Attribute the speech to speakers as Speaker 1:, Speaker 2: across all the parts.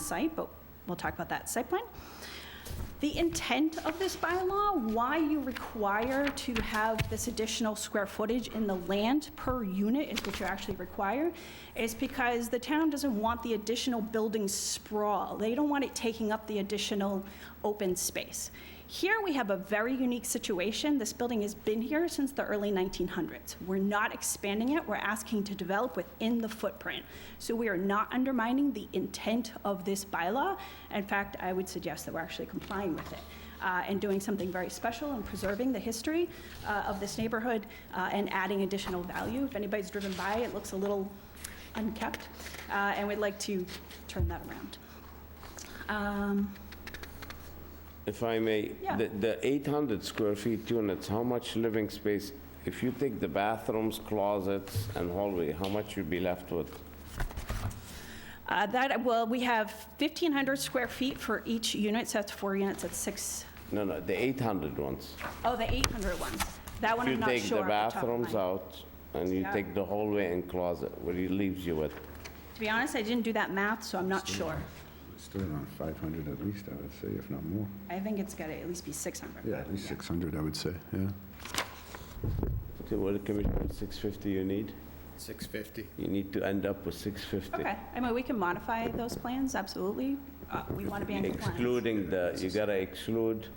Speaker 1: site, but we'll talk about that site plan. The intent of this bylaw, why you require to have this additional square footage in the land per unit is what you actually require, is because the town doesn't want the additional building sprawl. They don't want it taking up the additional open space. Here, we have a very unique situation. This building has been here since the early 1900s. We're not expanding it, we're asking to develop within the footprint. So we are not undermining the intent of this bylaw. In fact, I would suggest that we're actually complying with it uh, and doing something very special and preserving the history uh, of this neighborhood uh, and adding additional value. If anybody's driven by, it looks a little unkept, uh, and we'd like to turn that around. Um,
Speaker 2: If I may,
Speaker 1: Yeah.
Speaker 2: the- the 800 square feet units, how much living space, if you take the bathrooms, closets, and hallway, how much you'd be left with?
Speaker 1: Uh, That, well, we have 1,500 square feet for each unit, so that's four units, that's six,
Speaker 2: No, no, the 800 ones.
Speaker 1: oh, the 800 ones. That one
Speaker 2: If you
Speaker 1: I'm not sure.
Speaker 2: take the
Speaker 1: off top of
Speaker 2: bathrooms
Speaker 1: mind.
Speaker 2: out, and you
Speaker 1: Yeah.
Speaker 2: take the hallway and closet, what it leaves you with?
Speaker 1: To be honest, I didn't do that math, so I'm not sure.
Speaker 3: Still around 500 at least, I would say, if not more.
Speaker 1: I think it's got to at least be 600.
Speaker 3: Yeah, at least 600, I would say, yeah.
Speaker 2: Okay, What, the Commissioner, 650 you need?
Speaker 4: 650.
Speaker 2: You need to end up with 650.
Speaker 1: Okay, I mean, we can modify those plans, absolutely. Uh, We want to be in compliance.
Speaker 2: Excluding the, you gotta exclude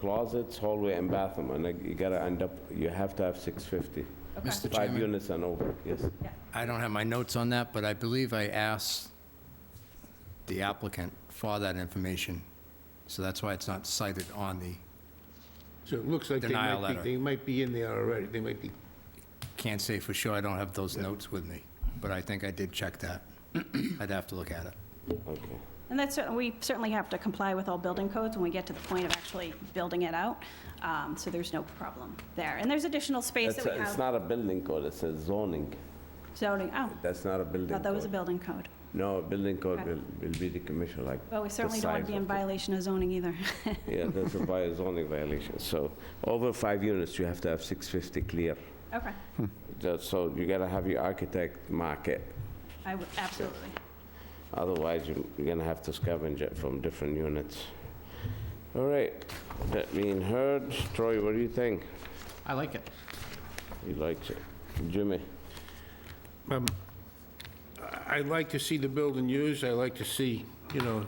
Speaker 2: closets, hallway, and bathroom, and like, you gotta end up, you have to have 650.
Speaker 1: Okay.
Speaker 4: Mr.
Speaker 2: Five
Speaker 4: Chairman.
Speaker 2: units and over, yes.
Speaker 4: I don't have my notes on that, but I believe I asked the applicant for that information, so that's why it's not cited on the,
Speaker 5: So it looks like they
Speaker 4: Denial
Speaker 5: might
Speaker 4: letter.
Speaker 5: be, they might be in there already, they might be,
Speaker 4: can't say for sure, I don't have those notes with me, but I think I did check that. I'd have to look at it.
Speaker 2: Okay.
Speaker 1: And that's, cer- we certainly have to comply with all building codes when we get to the point of actually building it out, um, so there's no problem there. And there's additional space that
Speaker 2: That's
Speaker 1: we
Speaker 2: a- It's
Speaker 1: have
Speaker 2: not a building code, it's a zoning.
Speaker 1: zoning, oh,
Speaker 2: That's not a building code.
Speaker 1: thought that was a building code.
Speaker 2: No, a building code
Speaker 1: Okay.
Speaker 2: will, will be the commission, like.
Speaker 1: Well, we
Speaker 2: the
Speaker 1: certainly don't want
Speaker 2: size
Speaker 1: to be in
Speaker 2: of it.
Speaker 1: violation of zoning either.
Speaker 2: Yeah, that's a by zoning violation. So over five units, you have to have 650 clear.
Speaker 1: Okay,
Speaker 2: That- So you gotta have your architect mark it.
Speaker 1: I would, absolutely.
Speaker 2: Otherwise, you- you're gonna have to scavenge it from different units. All right, that being heard, Troy, what do you think?
Speaker 5: I like it.
Speaker 2: He likes it. Jimmy?
Speaker 5: Um, I like to see the building used, I like to see, you know,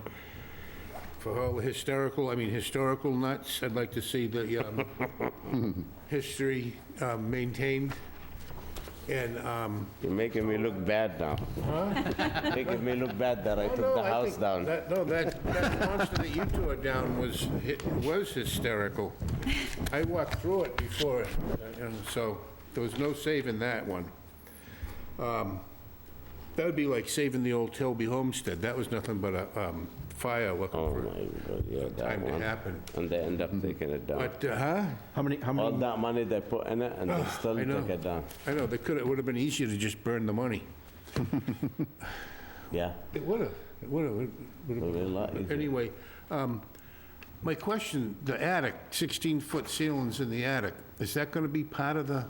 Speaker 5: for all the hysterical, I mean, historical nuts, I'd like to see the um, history um, maintained, and, um...
Speaker 2: You're making me look bad now. Making me look bad that
Speaker 5: Oh,
Speaker 2: I took the house down.
Speaker 5: That- No, that, that monster that you tore down was, hi- was hysterical. I walked through it before, and so there was no saving that one. Um, That would be like saving the old Tilby Homestead. That was nothing but a um, fire looking
Speaker 2: Oh,
Speaker 5: for
Speaker 2: my God, yeah, that
Speaker 5: time to
Speaker 2: one.
Speaker 5: happen. Hmm.
Speaker 2: And they end up taking it down.
Speaker 5: But, uh, huh?
Speaker 6: How many, how
Speaker 2: All
Speaker 6: many,
Speaker 2: that money they put in it, and they still
Speaker 5: I know.
Speaker 2: take it down.
Speaker 5: I know, they could, it would have been easier to just burn the money.
Speaker 2: Yeah, uh,
Speaker 5: It would have, it would have, it would
Speaker 2: it
Speaker 5: have.
Speaker 2: would be a lot easier.
Speaker 5: Anyway, um, my question, the attic, 16-foot ceilings in the attic, is that going to be part of the,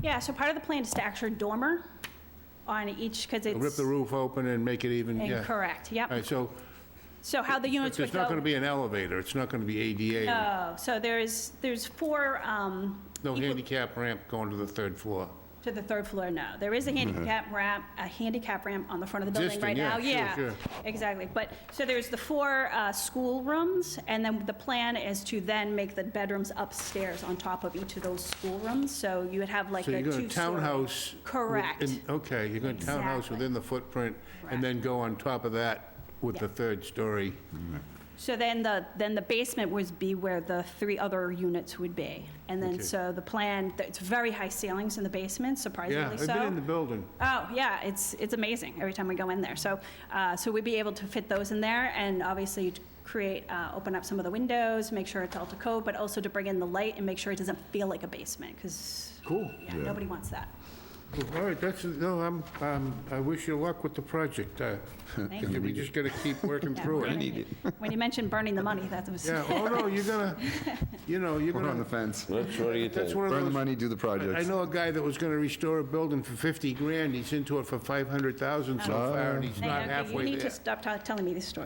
Speaker 1: Yeah, so part of the plan is to actually dormer on each, because it's.
Speaker 5: rip the roof open and make it even, yeah?
Speaker 1: Incorrect,
Speaker 5: All
Speaker 1: yep.
Speaker 5: right, so
Speaker 1: So how the units would
Speaker 5: there's
Speaker 1: go.
Speaker 5: not going to be an elevator, it's not going to be ADA,
Speaker 1: Oh, so there's, there's four, um,
Speaker 5: no
Speaker 1: equal-
Speaker 5: handicap ramp going to the third floor.
Speaker 1: to the third floor, no. There is a handicap ramp, a handicap ramp on the front of the building
Speaker 5: Mm-hmm. Existing,
Speaker 1: right
Speaker 5: yeah,
Speaker 1: now.
Speaker 5: sure, sure.
Speaker 1: Exactly. But, so there's the four uh, school rooms, and then the plan is to then make the bedrooms upstairs on top of each of those school rooms. So you would have like
Speaker 5: So
Speaker 1: a
Speaker 5: you're
Speaker 1: two-story.
Speaker 5: going to townhouse. with-
Speaker 1: Correct.
Speaker 5: in- Okay, you're going to townhouse
Speaker 1: Exactly.
Speaker 5: within the footprint, and then go on top of that with the
Speaker 1: Yeah.
Speaker 5: third story.
Speaker 1: So then the, then the basement would be where the three other units would be. And then,
Speaker 5: Okay.
Speaker 1: so the plan, it's very high ceilings in the basement,
Speaker 5: Yeah,
Speaker 1: surprisingly
Speaker 5: I've
Speaker 1: so.
Speaker 5: been in the building.
Speaker 1: Oh, yeah, it's, it's amazing every time we go in there. So, uh, so we'd be able to fit those in there and obviously to create, uh, open up some of the windows, make sure it's all to code, but also to bring in the light and make sure it doesn't feel like a basement, because. Cool. Yeah, nobody wants that.
Speaker 5: All right, that's, no, I'm, um, I wish you luck with the project. Uh,
Speaker 1: Thank
Speaker 5: We just gotta keep working
Speaker 1: Yeah,
Speaker 5: through
Speaker 1: when
Speaker 5: it.
Speaker 1: you- When you mentioned burning the money, that was,
Speaker 5: Yeah, oh, no, you're gonna, you know, you're
Speaker 3: We're on the
Speaker 5: gonna,
Speaker 3: fence.
Speaker 2: Rich, what do you
Speaker 5: that's
Speaker 2: think?
Speaker 5: one of
Speaker 3: Burn the
Speaker 5: those.
Speaker 3: money, do the
Speaker 5: I I
Speaker 3: projects.
Speaker 5: know a guy that was gonna restore a building for 50 grand, he's into it for 500,000 so far, and he's
Speaker 1: Hey, okay,
Speaker 5: not
Speaker 1: Oh. you
Speaker 5: halfway
Speaker 1: need to
Speaker 5: there.
Speaker 1: stop ta- telling me this story.